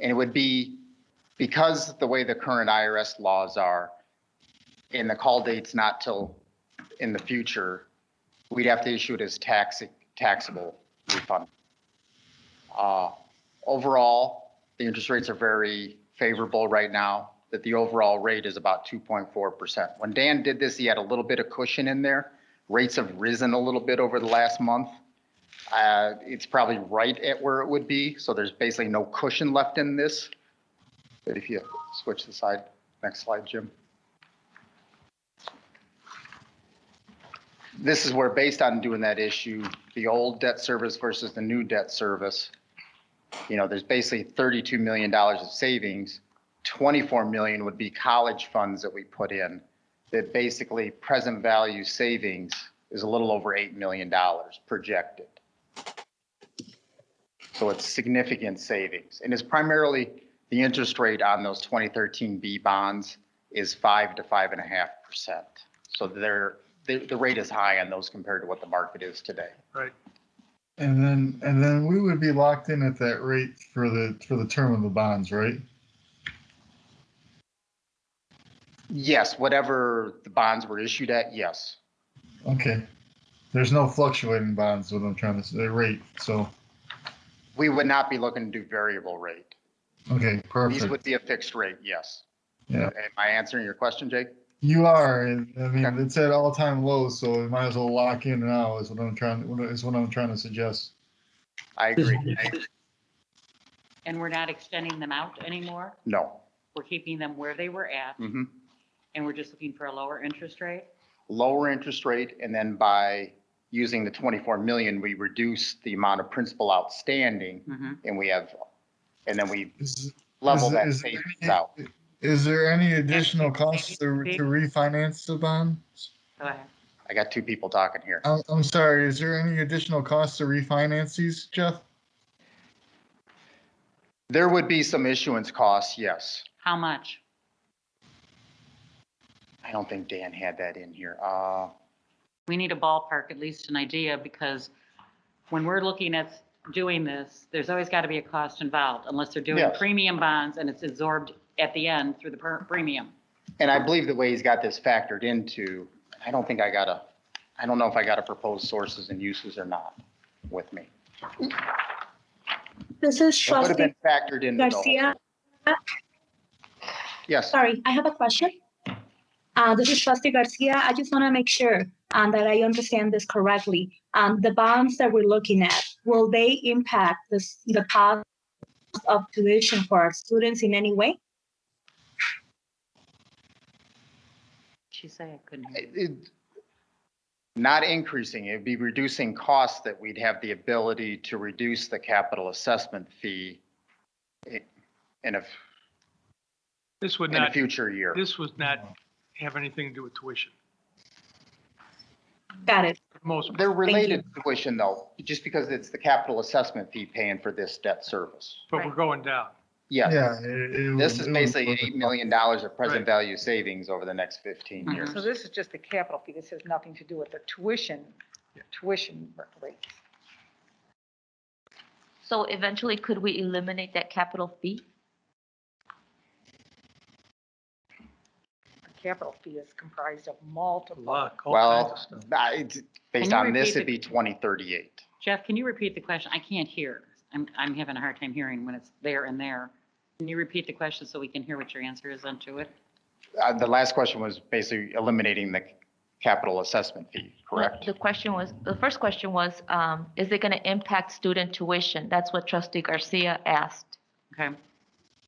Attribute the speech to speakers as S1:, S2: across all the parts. S1: And it would be, because the way the current IRS laws are, and the call date's not till in the future, we'd have to issue it as tax, taxable refund. Uh, Overall, the interest rates are very favorable right now, that the overall rate is about 2.4%. When Dan did this, he had a little bit of cushion in there. Rates have risen a little bit over the last month. Uh, It's probably right at where it would be, so there's basically no cushion left in this. But if you switch the side, next slide, Jim. This is where, based on doing that issue, the old debt service versus the new debt service, you know, there's basically $32 million of savings. 24 million would be college funds that we put in, that basically present value savings is a little over $8 million projected. So it's significant savings. And it's primarily the interest rate on those 2013B bonds is 5 to 5.5%. So they're, the, the rate is high on those compared to what the market is today.
S2: And then, and then we would be locked in at that rate for the, for the term of the bonds, right?
S1: Yes, whatever the bonds were issued at, yes.
S2: Okay. There's no fluctuating bonds, what I'm trying to say, rate, so,
S1: We would not be looking to do variable rate.
S2: okay,
S1: These
S2: perfect.
S1: would be a fixed rate, yes.
S2: Yeah.
S1: Am I answering your question, Jake?
S2: You are, and, I mean, it's at all-time lows, so we might as well lock in now is what I'm trying, what- is what I'm trying to suggest.
S1: I agree.
S3: And we're not extending them out anymore.
S1: No.
S3: We're keeping them where they were at
S1: Mhm.
S3: and we're just looking for a lower interest rate.
S1: Lower interest rate, and then by using the 24 million, we reduce the amount of principal outstanding,
S3: Mhm.
S1: and we have, and then we
S2: Is,
S1: level
S2: Is-
S1: that
S2: is there
S1: savings
S2: any-
S1: out.
S2: is there any additional costs to, to refinance the bonds?
S3: Go ahead.
S1: I got two people talking here.
S2: I'm, I'm sorry, is there any additional costs to refinance these, Jeff?
S1: There would be some issuance costs, yes.
S3: How much?
S1: I don't think Dan had that in here. Uh,
S3: We need a ballpark, at least an idea, because when we're looking at doing this, there's always got to be a cost involved unless they're doing
S1: Yes.
S3: premium bonds and it's absorbed at the end through the per- premium.
S1: And I believe the way he's got this factored into, I don't think I got a, I don't know if I got a proposed sources and uses or not with me. It
S4: This is
S1: would have
S4: trustee
S1: been factored into the whole.
S4: Garcia.
S1: Yes,
S4: Sorry, I have a question. Uh, This is trustee Garcia. I just want to make sure um, that I understand this correctly. Um, The bonds that we're looking at, will they impact this- the cost of tuition for our students in any way?
S3: She said I couldn't. hear you.
S1: it, it- not increasing, it'd be reducing costs that we'd have the ability to reduce the capital assessment fee i- in a,
S5: This would
S1: in a
S5: not,
S1: future year.
S5: this would not have anything to do with tuition.
S4: Got it.
S5: Most,
S1: They're related to tuition though, just because it's the capital assessment fee paying for this debt service.
S5: but we're going down.
S1: Yes.
S2: Yeah. it- it
S1: This is
S2: would- it would-
S1: basically $8 million of present
S5: Right.
S1: value savings over the next 15
S3: Mhm.
S1: years.
S6: So this is just the capital fee. This has nothing to do with the tuition, tuition rate.
S7: So eventually, could we eliminate that capital fee?
S6: The capital fee is comprised of multiple.
S5: Luck, all kinds of
S1: Well,
S5: stuff.
S1: I- it's- based
S3: you
S1: on this,
S3: repeat
S1: it'd be 2038.
S3: Jeff, can you repeat the question? I can't hear. I'm, I'm having a hard time hearing when it's there and there. Can you repeat the question so we can hear what your answer is onto it?
S1: Uh, The last question was basically eliminating the capital assessment fee, correct?
S7: The question was, the first question was, um, is it going to impact student tuition? That's what trustee Garcia asked.
S3: Okay,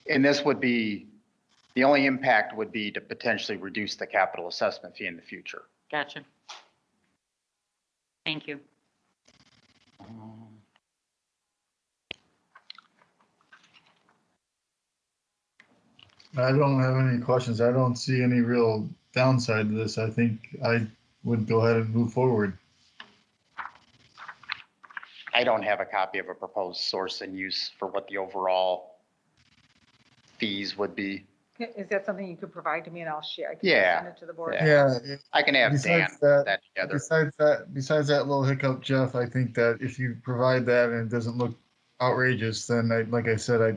S1: And this would be, the only impact would be to potentially reduce the capital assessment fee in the future.
S3: gotcha. Thank you.
S2: I don't have any questions. I don't see any real downside to this. I think I would go ahead and move forward.
S1: I don't have a copy of a proposed source and use for what the overall fees would be.
S6: Is that something you could provide to me and I'll share? I can
S1: Yeah.
S6: Send it to the board.
S1: Yeah.
S2: Yeah,
S1: I can have Dan
S2: besides
S1: put
S2: that,
S1: that together.
S2: besides that, besides that little hiccup, Jeff, I think that if you provide that and it doesn't look outrageous, then I, like I said, I